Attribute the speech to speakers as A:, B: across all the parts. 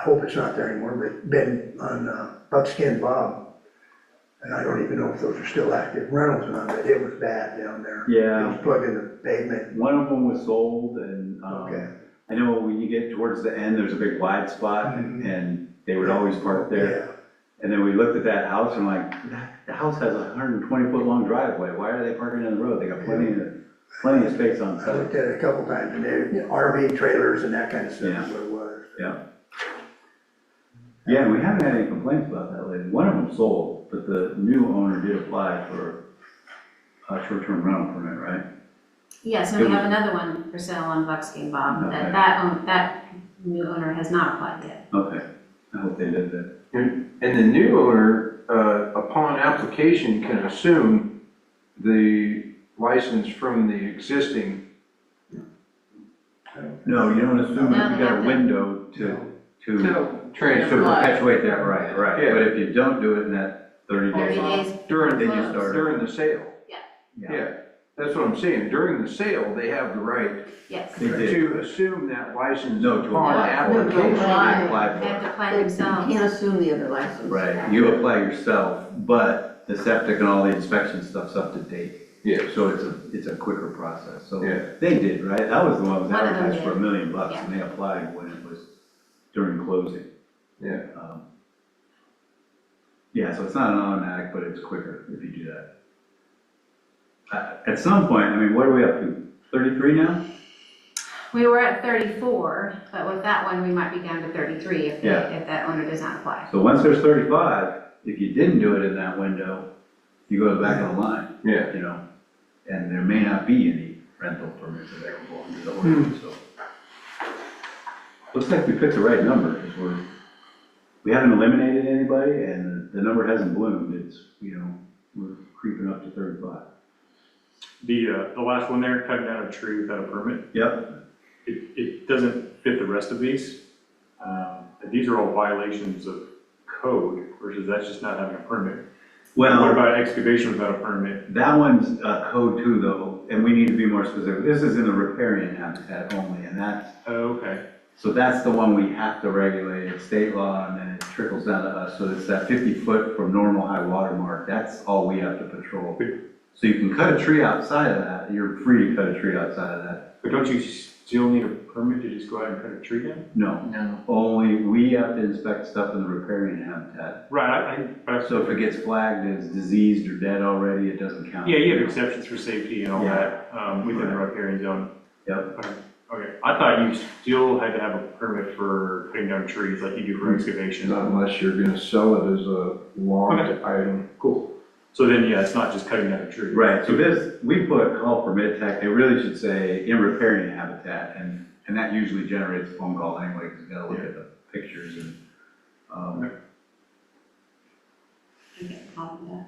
A: I hope it's not there anymore, but been on uh, Buckskin Bob. And I don't even know if those are still active. Reynolds on it, it was bad down there. It
B: Yeah,
A: was plugged in the pavement.
B: one of them was sold and, um,
A: Okay.
B: I know when you get towards the end, there's a big wide spot
A: Mm-hmm.
B: and, and they would always park there. And then we looked at that house and like, that, the house has a hundred and twenty foot long driveway, why are they parking in the road? They got plenty of, plenty of space on
A: Yeah, I
B: site.
A: looked at it a couple times, and they, RV trailers and that kind of stuff is
B: Yeah.
A: what it was.
B: Yeah, and we haven't had any complaints about that lately. One of them sold, but the new owner did apply for a short-term rental permit, right?
C: Yes, and we have another one for sale on Buckskin Bob,
B: Okay.
C: that, that, own- that new owner has not applied yet.
B: Okay, I hope they did that.
D: And the new owner, uh, upon application, can assume the license from the existing.
B: No, you don't assume if you got a
C: No.
B: window to, to, to
D: Transfer
B: perpetuate that right, right.
D: Yeah.
B: But if you don't do it in that thirty
C: Thirty
B: days,
C: days,
D: during,
B: then you
C: Close.
B: start.
D: during the sale.
B: Yeah,
D: Yeah, that's what I'm saying. During the sale, they have the right
C: yes.
B: They did.
D: to assume that license
B: No, to
D: upon
B: apply for it.
D: application.
C: Apply.
B: Apply
C: They
B: for
C: have
B: it.
C: to apply
E: You
C: themselves.
E: can't assume the other license.
B: Right, you apply yourself, but the septic and all the inspection stuff's up to date.
D: Yeah.
B: So it's a, it's a quicker process, so.
D: Yeah.
B: They did, right? That was the one that was
C: One of them
B: advertised for a
C: did.
B: million bucks, and they applied when it was during closing.
D: Yeah.
B: Um, Yeah, so it's not an automatic, but it's quicker if you do that. Uh, At some point, I mean, what are we up to, thirty-three now?
C: We were at thirty-four, but with that one, we might be down to thirty-three if, they-
B: Yeah.
C: if that owner does not apply.
B: So once there's thirty-five, if you didn't do it in that window, you go to the back of the line,
D: Yeah.
B: you know? And there may not be any rental permits available under the ordinance, so. Looks like we picked the right number, because we're, we haven't eliminated anybody, and the number hasn't bloomed, it's, you know, we're creeping up to thirty-five.
F: The, uh, the last one there, cutting down a tree without a permit,
B: Yep,
F: it, it doesn't fit the rest of these. Um, and These are all violations of code versus that's just not having a permit. What
B: well,
F: about excavation without a permit?
B: that one's uh, code two though, and we need to be more specific. This is in the riparian habitat only, and that's
F: Oh, okay,
B: So that's the one we have to regulate, it's state law, and then it trickles down to us, so it's that fifty foot from normal high water mark, that's all we have to patrol. So you can cut a tree outside of that, you're free to cut a tree outside of that,
F: but don't you still need a permit to just go out and cut a tree down?
B: no.
D: No.
B: Only, we have to inspect stuff in the riparian habitat,
F: Right, I, I, but I-
B: so if it gets flagged as diseased or dead already, it doesn't count.
F: yeah, you have exceptions for safety and all
B: Yeah.
F: that, um, within the riparian zone.
B: Yep,
F: Okay, I thought you still had to have a permit for cutting down trees like you do for excavation.
D: Not unless you're gonna sell it as a logged item.
F: Cool. So then, yeah, it's not just cutting down a tree.
B: right, so this, we put call permit tech, it really should say in riparian habitat, and, and that usually generates a phone call anyway, because you gotta look at the pictures and, um,
C: We get called that.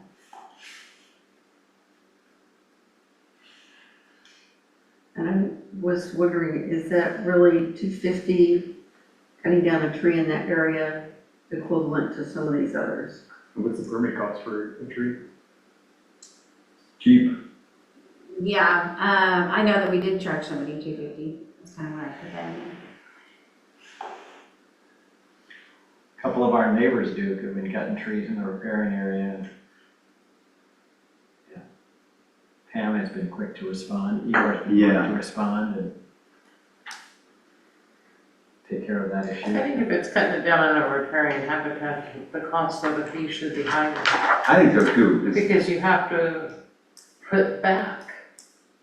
E: And I was wondering, is that really two fifty, cutting down a tree in that area equivalent to some of these others?
F: What's the permit cost for a tree?
B: cheap
C: Yeah, um, I know that we did charge somebody two fifty, that's kind of where I put that in.
G: couple of our neighbors do, because we've gotten trees in the repairing area. and- Yeah. Pam has been quick to respond, Eeyore's been quick
B: Yeah.
G: to respond and take care of that
H: I
G: issue.
H: think if it's cutting it down on a riparian habitat, the cost of the fee should be higher,
B: I think so too. It's-
H: because you have to put back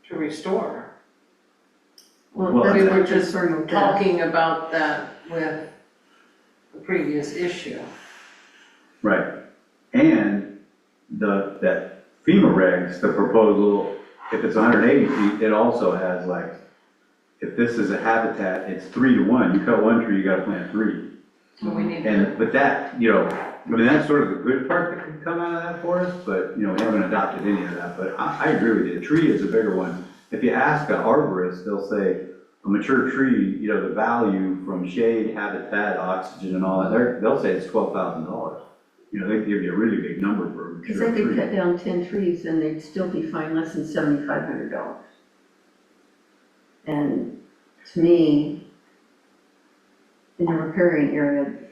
H: to restore.
E: Well,
B: Well,
E: that's
H: We
E: what
H: were
E: I'm
H: just
E: concerned with that.
H: talking about that with the previous issue.
B: Right. And the, that FEMA regs, the proposal, if it's hundred and eighty feet, it also has like, if this is a habitat, it's three to one. You cut one tree, you gotta plant three.
H: So we need to,
B: And, but that, you know, I mean, that's sort of the good part that could come out of that for us, but, you know, we haven't adopted any of that. But I, I agree with you. A tree is a bigger one. If you ask an arborist, they'll say, a mature tree, you know, the value from shade, habitat, oxygen and all that, they're, they'll say it's twelve thousand dollars. You know, they give you a really big number for a
E: Because
B: mature
E: they could cut
B: tree.
E: down ten trees and they'd still be fined less than seventy-five hundred dollars. And to me, in the repairing area,